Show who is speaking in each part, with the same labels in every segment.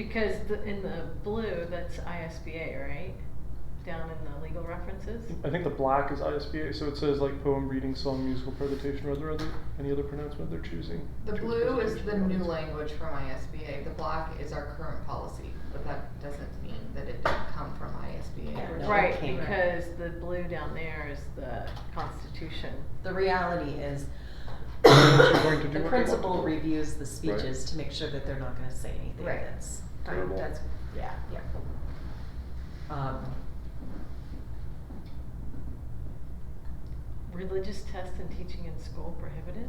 Speaker 1: Because the, in the blue, that's ISBA, right? Down in the legal references?
Speaker 2: I think the black is ISBA, so it says like poem, reading, song, musical presentation, or other, other any other pronouncement they're choosing.
Speaker 3: The
Speaker 2: Choose
Speaker 3: blue is the
Speaker 2: presentation
Speaker 3: new
Speaker 2: pronouns.
Speaker 3: language from ISBA, the black is our current policy, but that doesn't mean that it didn't come from
Speaker 4: Yeah,
Speaker 3: ISBA.
Speaker 4: no, it
Speaker 1: Right,
Speaker 4: came-
Speaker 1: because the blue down there is the constitution.
Speaker 4: The reality is,
Speaker 2: They're going to do what they want to
Speaker 4: the
Speaker 2: do.
Speaker 4: principal reviews the
Speaker 2: Right.
Speaker 4: speeches to make sure that they're not gonna say anything
Speaker 3: Right.
Speaker 4: that's,
Speaker 2: Terrible.
Speaker 3: That's,
Speaker 4: yeah.
Speaker 3: yeah.
Speaker 4: Um,
Speaker 1: Religious tests and teaching in school prohibited?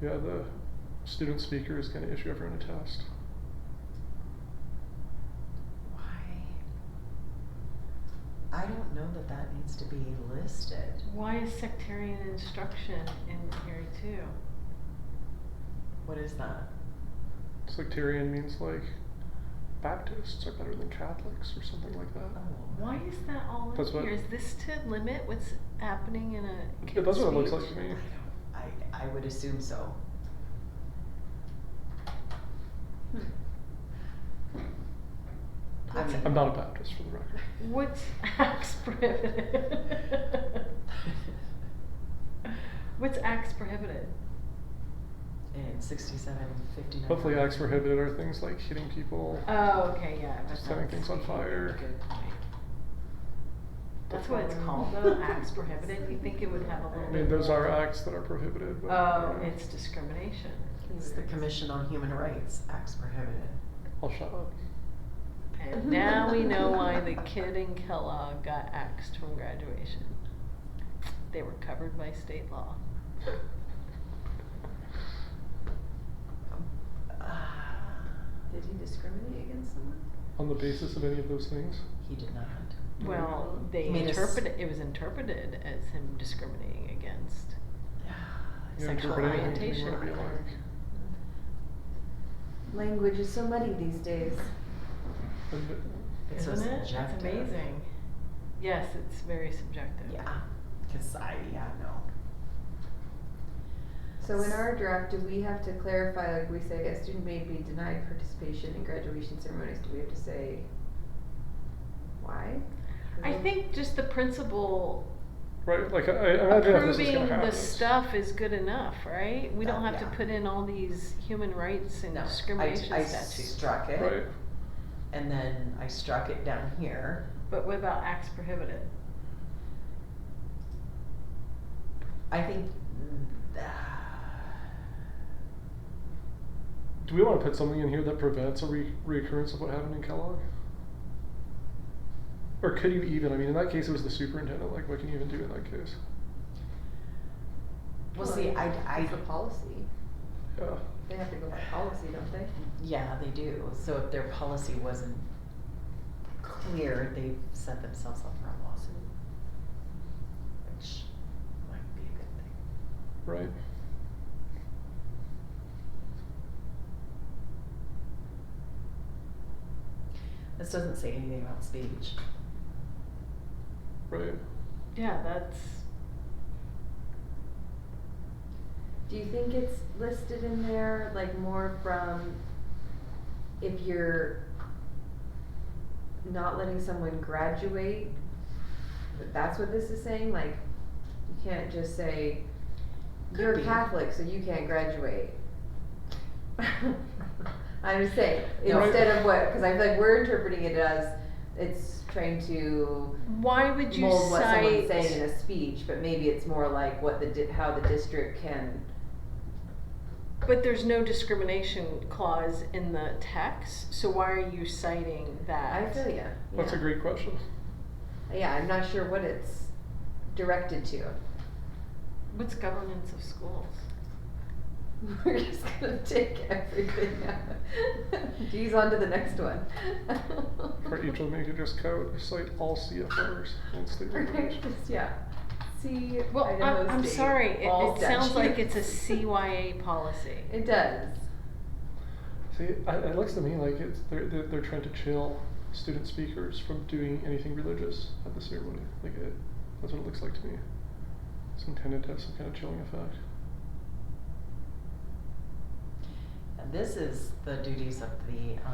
Speaker 2: Yeah, the student speaker is going to issue everyone a test.
Speaker 4: why? I don't know that that needs to be listed.
Speaker 1: Why is sectarian instruction in here too?
Speaker 4: What is that?
Speaker 2: Sectarian means like Baptists are better than Catholics or something like that.
Speaker 1: Why is that all
Speaker 2: That's
Speaker 1: in
Speaker 2: what-
Speaker 1: here? Is this to limit what's happening in a
Speaker 2: Yeah, that's what it looks
Speaker 1: speech?
Speaker 2: like to
Speaker 4: I
Speaker 2: me.
Speaker 4: don't, I, I would assume so. I
Speaker 1: What's-
Speaker 4: mean-
Speaker 2: I'm not a Baptist for the record.
Speaker 1: What's acts prohibited? What's acts prohibited?
Speaker 4: In sixty-seven, fifty-nine.
Speaker 2: Hopefully, acts prohibited are things like hitting people.
Speaker 3: Uh,
Speaker 1: Oh, okay, yeah. that's-
Speaker 2: Just setting things on fire.
Speaker 4: Good point.
Speaker 1: That's what it's called though, acts prohibited. You think it would have a little
Speaker 2: I
Speaker 1: bit.
Speaker 2: mean, those
Speaker 1: more-
Speaker 2: are uh, acts that are prohibited. But
Speaker 1: Oh, it's discrimination.
Speaker 4: It's the Commission on Human Rights, acts prohibited.
Speaker 2: I'll shut up.
Speaker 1: And now we know why the kid in Kellogg got axed from graduation. They were covered by state law.
Speaker 3: Did he discriminate against someone?
Speaker 2: On the basis of any of those things,
Speaker 4: He did not.
Speaker 1: Well, they
Speaker 4: I mean, it's-
Speaker 1: interpreted, it was interpreted as him discriminating against.
Speaker 2: you
Speaker 4: Sexual
Speaker 2: interpret anything you
Speaker 1: orientation.
Speaker 2: want to be like.
Speaker 5: Language is so muddy these days.
Speaker 2: And it-
Speaker 4: It's so
Speaker 1: Isn't it? It's
Speaker 4: subjective.
Speaker 1: amazing. Yes, it's very subjective.
Speaker 4: Yeah, cause I, yeah, no.
Speaker 5: So in our draft, do we have to clarify, like we say, a student may be denied participation in graduation ceremonies, do we have to say why?
Speaker 1: I think just the principle
Speaker 2: Right, like I, I imagine if this is
Speaker 1: approving
Speaker 2: gonna happen.
Speaker 1: the
Speaker 2: it's-
Speaker 1: stuff is good enough, right? We don't
Speaker 4: That-
Speaker 1: have to
Speaker 4: yeah.
Speaker 1: put in all these human rights and
Speaker 4: No, I-
Speaker 1: discrimination
Speaker 4: I
Speaker 1: statutes.
Speaker 4: struck
Speaker 2: Right.
Speaker 4: it, and then I struck it down here.
Speaker 1: But what about acts prohibited?
Speaker 4: I think. mm,
Speaker 2: Do we want to put something in here that prevents a re- reoccurrence of what happened in Kellogg? Or could you even? I mean, in that case, it was the superintendent. Like, what can you even do in that case?
Speaker 4: Well, see, I, I,
Speaker 5: It's a policy,
Speaker 2: Yeah.
Speaker 5: they have to go by policy, don't they?
Speaker 4: yeah, they do, so if their policy wasn't clear, they've set themselves up for a lawsuit. Which might be a good thing.
Speaker 2: Right.
Speaker 4: This doesn't say anything about speech.
Speaker 2: Right.
Speaker 1: Yeah, that's
Speaker 5: Do you think it's listed in there, like more from if you're not letting someone graduate? that That's what this is saying, like, you can't just say,
Speaker 4: Could
Speaker 5: you're
Speaker 4: be.
Speaker 5: Catholic, so you can't graduate. I'm saying,
Speaker 4: No.
Speaker 5: instead of what, cause I feel like we're interpreting it as, it's trying to
Speaker 1: why would you
Speaker 5: mold what
Speaker 1: cite
Speaker 5: someone's saying in a speech, but maybe it's more like what the, di- how the district can
Speaker 1: but there's no discrimination clause in the text, so why are you citing
Speaker 5: I
Speaker 1: that?
Speaker 5: feel ya.
Speaker 2: That's a
Speaker 5: yeah.
Speaker 2: great question.
Speaker 5: Yeah, I'm not sure what it's directed to.
Speaker 1: What's governance of schools?
Speaker 5: We're just gonna take everything out. Geez, on to the next one.
Speaker 2: For each of them, you could just code cite all CFRs and state
Speaker 5: Right,
Speaker 2: regulations.
Speaker 5: just, yeah. See,
Speaker 1: Well,
Speaker 5: Idaho
Speaker 1: I'm, I'm
Speaker 5: State,
Speaker 1: sorry, it,
Speaker 5: all
Speaker 1: it sounds like it's a
Speaker 5: statutes.
Speaker 1: CYA policy.
Speaker 5: It does.
Speaker 2: See, I, it looks to me like it's they're, they're they're trying to chill student speakers from doing anything religious at the ceremony. Like, it, that's what it looks like to me. It's intended to have some kind of chilling effect.
Speaker 4: And this is the duties of the, um,